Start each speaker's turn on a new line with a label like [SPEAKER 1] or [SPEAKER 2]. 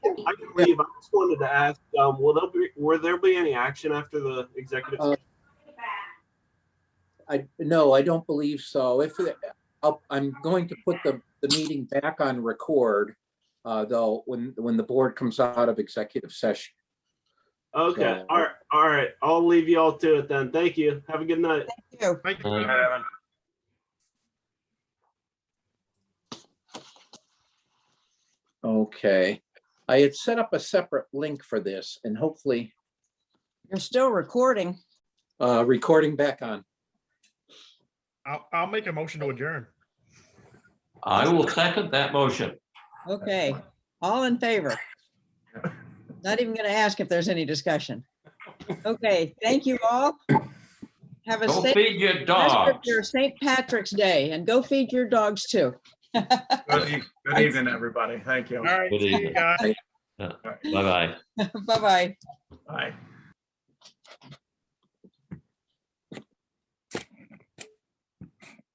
[SPEAKER 1] I can leave. I just wanted to ask, um, will there be, will there be any action after the executive?
[SPEAKER 2] Uh,
[SPEAKER 1] session?
[SPEAKER 2] I, no, I don't believe so. If, I'll- I'm going to put the, the meeting back on record, uh, though, when, when the board comes out of executive session.
[SPEAKER 1] Okay,
[SPEAKER 2] so-
[SPEAKER 1] all right, all right. I'll leave you all to it then. Thank you. Have a good night.
[SPEAKER 3] you.
[SPEAKER 4] Thank
[SPEAKER 5] All
[SPEAKER 4] you.
[SPEAKER 5] right.
[SPEAKER 4] Evan.
[SPEAKER 2] Okay. I had set up a separate link for this and hopefully,
[SPEAKER 3] You're still recording.
[SPEAKER 2] uh, recording back on.
[SPEAKER 4] I'll, I'll make a motion to adjourn.
[SPEAKER 5] I will second that motion.
[SPEAKER 3] Okay, all in favor? Not even going to ask if there's any discussion. Okay, thank you all. Have a
[SPEAKER 5] Don't
[SPEAKER 3] safe
[SPEAKER 5] feed your
[SPEAKER 3] rest of
[SPEAKER 5] dogs.
[SPEAKER 3] your St. Patrick's Day and go feed your dogs too.
[SPEAKER 6] Good e- good evening, everybody. Thank you.
[SPEAKER 4] All right,
[SPEAKER 5] Good
[SPEAKER 4] see you
[SPEAKER 5] evening.
[SPEAKER 4] guys.
[SPEAKER 5] Bye-bye.
[SPEAKER 3] Bye-bye.
[SPEAKER 6] Bye.